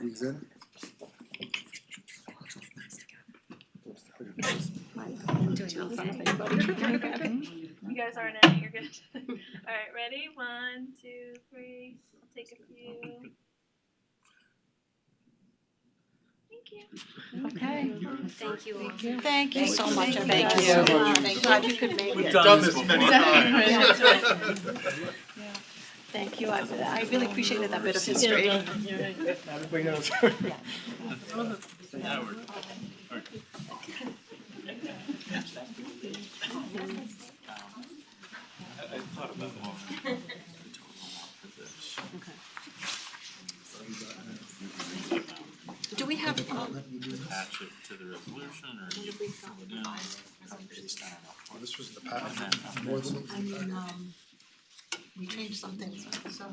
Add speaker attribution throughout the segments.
Speaker 1: the exhibit?
Speaker 2: You guys aren't in it, you're good. Alright, ready? One, two, three. I'll take a few. Thank you.
Speaker 3: Okay.
Speaker 4: Thank you all.
Speaker 3: Thank you so much,
Speaker 4: Thank
Speaker 3: everybody.
Speaker 4: you.
Speaker 3: Thank you. Glad you could make
Speaker 5: We've
Speaker 3: it.
Speaker 5: done this many times.
Speaker 3: Thank you, I, I really appreciated that bit of history.
Speaker 6: Everybody knows.
Speaker 3: Do we have, um,
Speaker 5: Attach it to the resolution or you pull it down.
Speaker 1: Oh, this was the packet, more than
Speaker 3: I mean, um, we changed some things, so.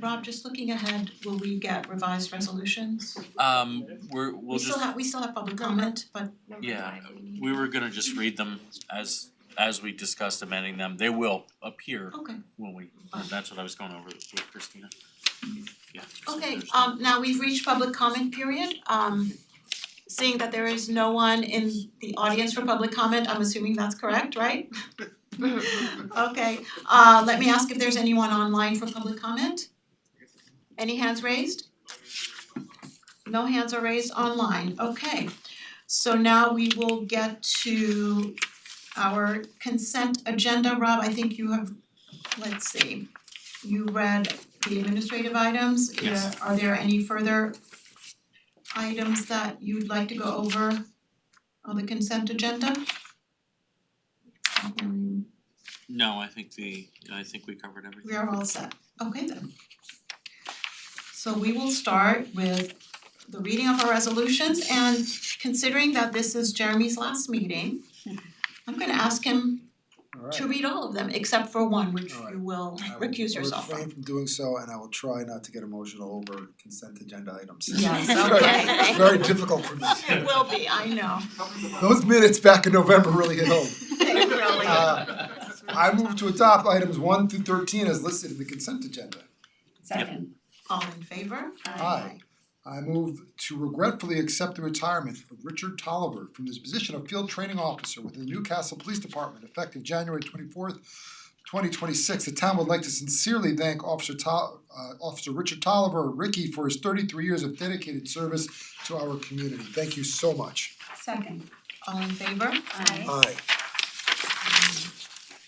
Speaker 3: Rob, just looking ahead, will we get revised resolutions?
Speaker 7: Um, we're,
Speaker 3: We
Speaker 7: we'll
Speaker 3: still
Speaker 7: just,
Speaker 3: have, we still have public comment, but
Speaker 7: yeah, we were gonna just read them as, as we discussed amending them. They will appear
Speaker 3: Okay,
Speaker 7: when we, that's what I was going over with Christina. Yeah. so
Speaker 3: okay,
Speaker 7: there's-
Speaker 3: um now we've reached public comment period, um seeing that there is no one in the audience for public comment, I'm assuming that's correct, right? Okay, uh let me ask if there's anyone online for public comment? Any hands raised? No hands are raised online, okay. So now we will get to our consent agenda, Rob, I think you have, let's see. You read the administrative items, yeah,
Speaker 7: Yes.
Speaker 3: are there any further items that you'd like to go over on the consent agenda? Um,
Speaker 7: No, I think the, I think we covered everything.
Speaker 3: we are all set, okay then. So we will start with the reading of our resolutions and considering that this is Jeremy's last meeting, I'm gonna ask him
Speaker 1: Alright.
Speaker 3: to read all of them except for one, which
Speaker 1: Alright.
Speaker 3: you will
Speaker 1: I will
Speaker 3: recuse yourself
Speaker 1: refrain
Speaker 3: from.
Speaker 1: from doing so and I will try not to get emotional over consent agenda items.
Speaker 3: Yes,
Speaker 1: Very-
Speaker 3: okay.
Speaker 1: Very difficult for me.
Speaker 3: It will be, I know,
Speaker 1: Those minutes back in November really hit home.
Speaker 3: it really is.
Speaker 1: Uh, I move to adopt items one through thirteen as listed in the consent agenda.
Speaker 7: Second.
Speaker 3: All in favor?
Speaker 1: Aye. I move to regretfully accept the retirement of Richard Tolliver from his position of field training officer with the Newcastle Police Department effective January twenty-fourth, twenty twenty-six. The town would like to sincerely thank Officer Tol- uh, Officer Richard Tolliver, Ricky, for his thirty-three years of dedicated service to our community. Thank you so much.
Speaker 3: Second. All in favor? Aye.
Speaker 1: Aye.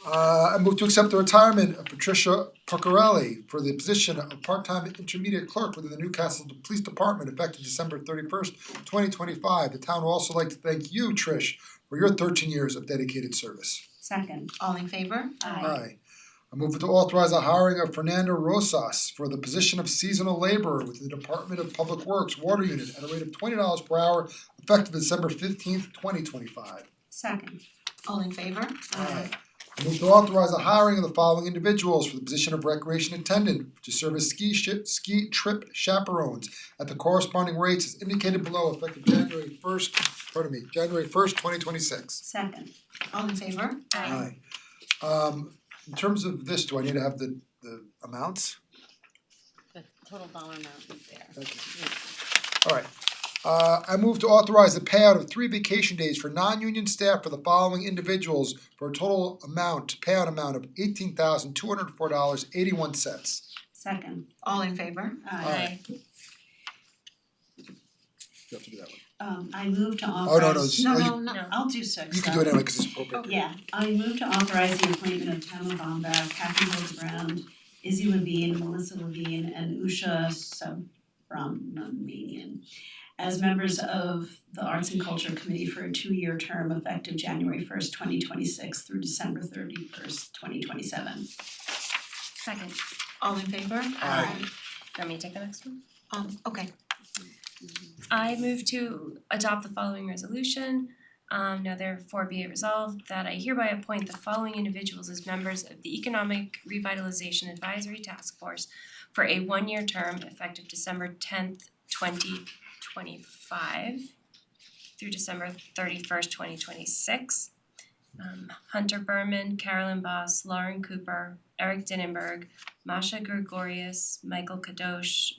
Speaker 1: Uh, I move to accept the retirement of Patricia Puccarelli for the position of part-time intermediate clerk within the Newcastle Police Department effective December thirty-first, twenty twenty-five. The town would also like to thank you, Trish, for your thirteen years of dedicated service.
Speaker 8: Second.
Speaker 3: All in favor?
Speaker 1: Aye. I move to authorize the hiring of Fernando Rosas for the position of seasonal laborer with the Department of Public Works Water Unit at a rate of twenty dollars per hour effective December fifteenth, twenty twenty-five.
Speaker 8: Second.
Speaker 3: All in favor?
Speaker 1: Aye. Move to authorize the hiring of the following individuals for the position of recreation attendant to serve as ski ship, ski trip chaperones at the corresponding rates as indicated below effective January first, pardon me, January first, twenty twenty six.
Speaker 8: Second.
Speaker 3: All in favor?
Speaker 1: Aye. Um, in terms of this, do I need to have the the amounts?
Speaker 4: The total dollar amount is there.
Speaker 1: Thank you. Alright, uh, I move to authorize the payout of three vacation days for non-union staff for the following individuals for a total amount, payout amount of eighteen thousand two hundred four dollars eighty one cents.
Speaker 8: Second.
Speaker 3: All in favor?
Speaker 1: Aye. You have to do that one.
Speaker 8: Um, I move to
Speaker 1: Oh, no, no,
Speaker 8: authorize.
Speaker 1: it's- oh, you-
Speaker 3: no.
Speaker 8: I'll do six.
Speaker 1: You can
Speaker 8: though.
Speaker 1: do it anyway, cause it's appropriate.
Speaker 8: Yeah, I move to authorize the appointment of Tamara Bonga, Kathy Hope Brown, Izzy Levine, Melissa Levine, and Usha Subramanian as members of the Arts and Culture Committee for a two-year term effective January first, twenty twenty-six through December thirty-first, twenty twenty-seven.
Speaker 4: Second.
Speaker 3: All in favor?
Speaker 1: Aye.
Speaker 4: Want me to take the next one?
Speaker 3: Um, okay,
Speaker 9: I move to adopt the following resolution. Um now therefore be it resolved that I hereby appoint the following individuals as members of the Economic Revitalization Advisory Task Force for a one-year term effective December tenth, twenty twenty-five through December thirty-first, twenty twenty-six. Um Hunter Berman, Carolyn Boss, Lauren Cooper, Eric Dinnenberg, Masha Gregorius, Michael Kadosh,